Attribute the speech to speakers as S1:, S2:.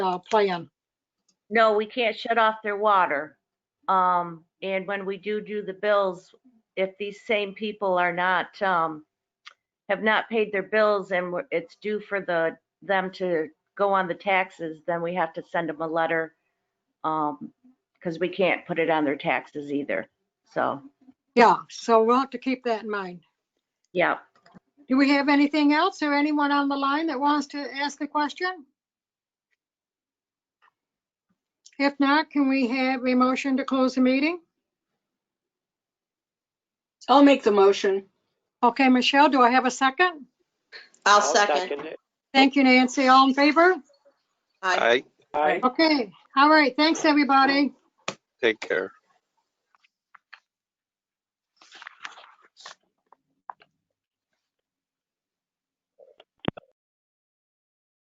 S1: uh, plan.
S2: No, we can't shut off their water. Um, and when we do do the bills, if these same people are not, um, have not paid their bills and we're- it's due for the, them to go on the taxes, then we have to send them a letter. Um, cause we can't put it on their taxes either. So,
S1: Yeah, so we'll have to keep that in mind.
S2: yeah.
S1: Do we have anything else or anyone on the line that wants to ask a question? If not, can we have a motion to close the meeting?
S3: I'll make the motion.
S1: Okay, Michelle, do I have a second?
S4: I'll second.
S5: it.
S1: Thank you, Nancy. All in favor?
S4: Aye.
S5: Aye,
S3: Aye.
S1: Okay, all right, thanks, everybody.
S5: take care.